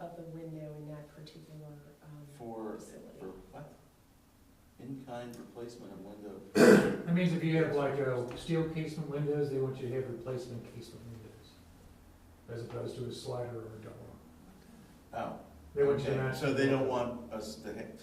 of the window in that particular um, For, for facility. what? In-kind replacement of window. That means if you have like uh, steel casement windows, they want you to have replacement casement windows, as opposed to a slider or a door. Oh, They want you to okay. match. So they don't want us to hit,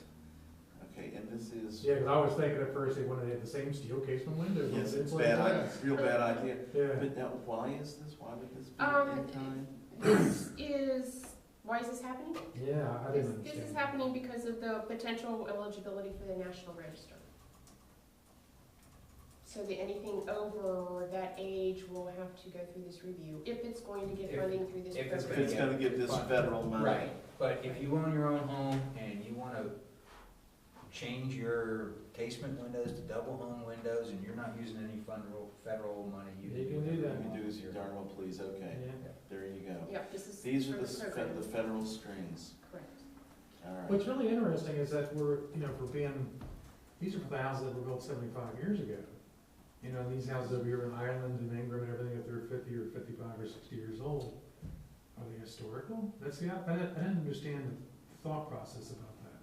okay, and this is, Yeah, 'cause I was thinking at first they wanted to have the same steel casement windows. yes, it's like bad, i- that. real bad idea. Yeah, But now, why is this, why would this be Um, in-kind? This is, why is this happening? yeah, I This, didn't this understand. is happening because of the potential eligibility for the National Register. So that anything over that age will have to go through this review, if it's going to get If- funding through this if it's If program. it's gonna give this federal money. Right, but if you own your own home and you wanna change your casement windows to double hung windows and you're not using any federal, federal money, you You can do You that. whatever do want. as you darn well please, okay, Yeah. there you go. Yep, this is. These for are the, s- program. the federal strings, Correct. all right. What's really interesting is that we're, you know, for being, these are for the houses that were built seventy-five years ago. You know, these houses over here in Ireland and England and everything, if they're fifty or fifty-five or sixty years old, are they historical? That's the, I didn't, I didn't understand the thought process about that.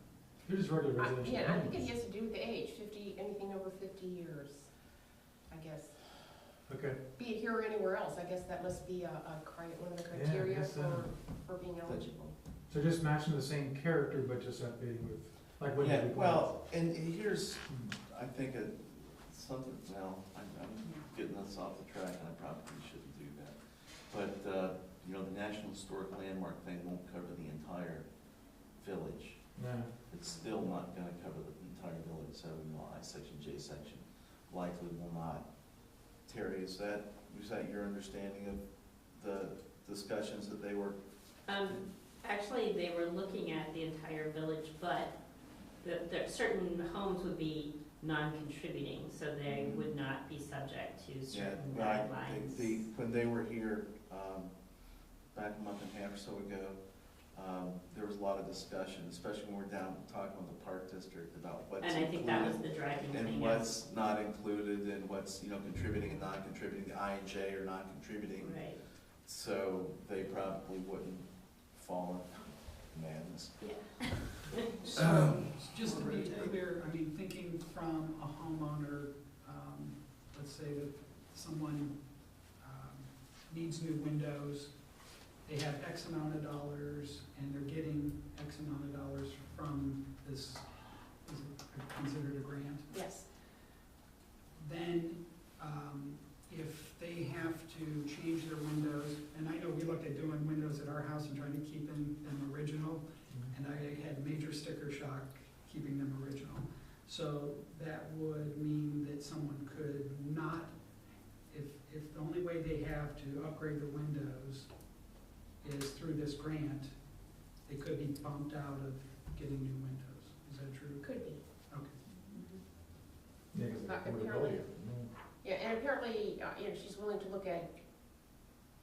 They're just regular I- residential Yeah, I think it homes. has to do with the age, fifty, anything over fifty years, I guess. Okay, Be it here or anywhere else, I guess that must be a, a cri, one of the Yeah, I criteria guess so. um, for, for being eligible. so just matching the same character, but just updating with, like what Yeah, you. Hmm, well, and here's, I think a, something, well, I'm, I'm getting us off the track and I probably shouldn't do that. But, uh, you know, the National Historic Landmark thing won't cover the entire village. No, It's still not gonna cover the entire village, so, you know, I section, J section, likely will not. Terry, is that, is that your understanding of the discussions that they were? Um, actually, they were looking at the entire village, but the, the certain homes would be non-contributing, so they would not be subject to Yeah, certain right, guidelines. the, the- when they were here, um, back a month and a half or so ago, um, there was a lot of discussion, especially when we're down, talking with the park district about what's And I think that was included the driving and thing. what's not included and what's, you know, contributing and not contributing, the I and J are not contributing. Right, So they probably wouldn't fall in madness. yeah. So, just to be clear, I mean, thinking from a homeowner, um, let's say that someone, um, needs new windows, they have X amount of dollars, and they're getting X amount of dollars from this, is it considered a grant? Yes, Then, um, if they have to change their windows, and I know we looked at doing windows at our house and trying to keep them, them original, and I had major sticker shock keeping them original. So that would mean that someone could not, if, if the only way they have to upgrade the windows is through this grant, they could be bumped out of getting new windows. Is that true? could be. Mm-hmm. yeah, Okay. 'cause Not they're gonna be affordability. Yeah, and apparently, uh, you know, she's willing to look at,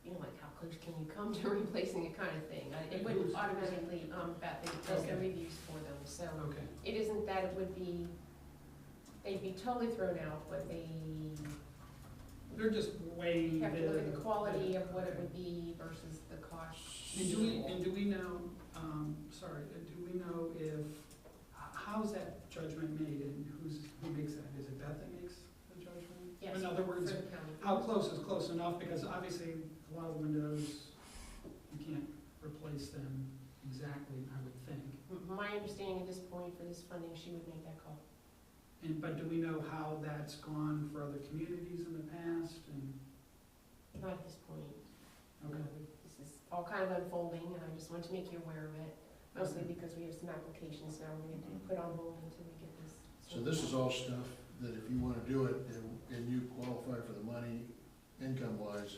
you know, like how close can you come to replacing it kind of thing. I- It wouldn't automatically, um, that they does the Mm-hmm. Okay. reviews for them, so Okay. it isn't that it would be, they'd be totally thrown out, but they They're just weighing the. have to look at the quality of what it would be versus the cost. And do we, and do we know, um, sorry, uh, do we know if, h- how's that judgment made and who's, who makes that? Is it Beth that makes the judgment? Yes. In other For words, the county. how close is close enough? Because obviously, a lot of windows, you can't replace them exactly, I would think. M- My understanding at this point for this funding, she would make that call. And, but do we know how that's gone for other communities in the past and, Not at this point. okay, Um, This is all kind of unfolding, and I just want to make you aware of it, mostly because we have some applications now we're gonna put on hold until we get this. So this is all stuff that if you wanna do it and, and you qualify for the money, income wise,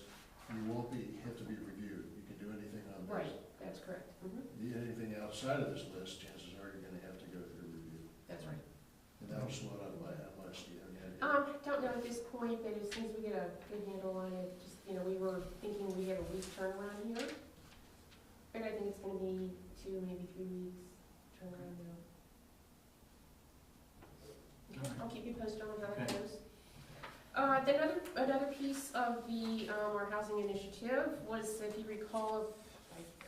you won't be, have to be reviewed. You can do anything on this. Right, that's correct. Mhm, You- Anything outside of this list, chances are you're gonna have to go through review. That's right. And that'll slow down by how much, do you have any idea? Um, don't know at this point, but as soon as we get a good handle on it, just, you know, we were thinking we had a week turnaround here. But I think it's gonna be two, maybe three weeks turnaround now. Okay, I'll keep you posted on how that Okay. goes. Uh, then another, another piece of the, um, our housing initiative was, if you recall,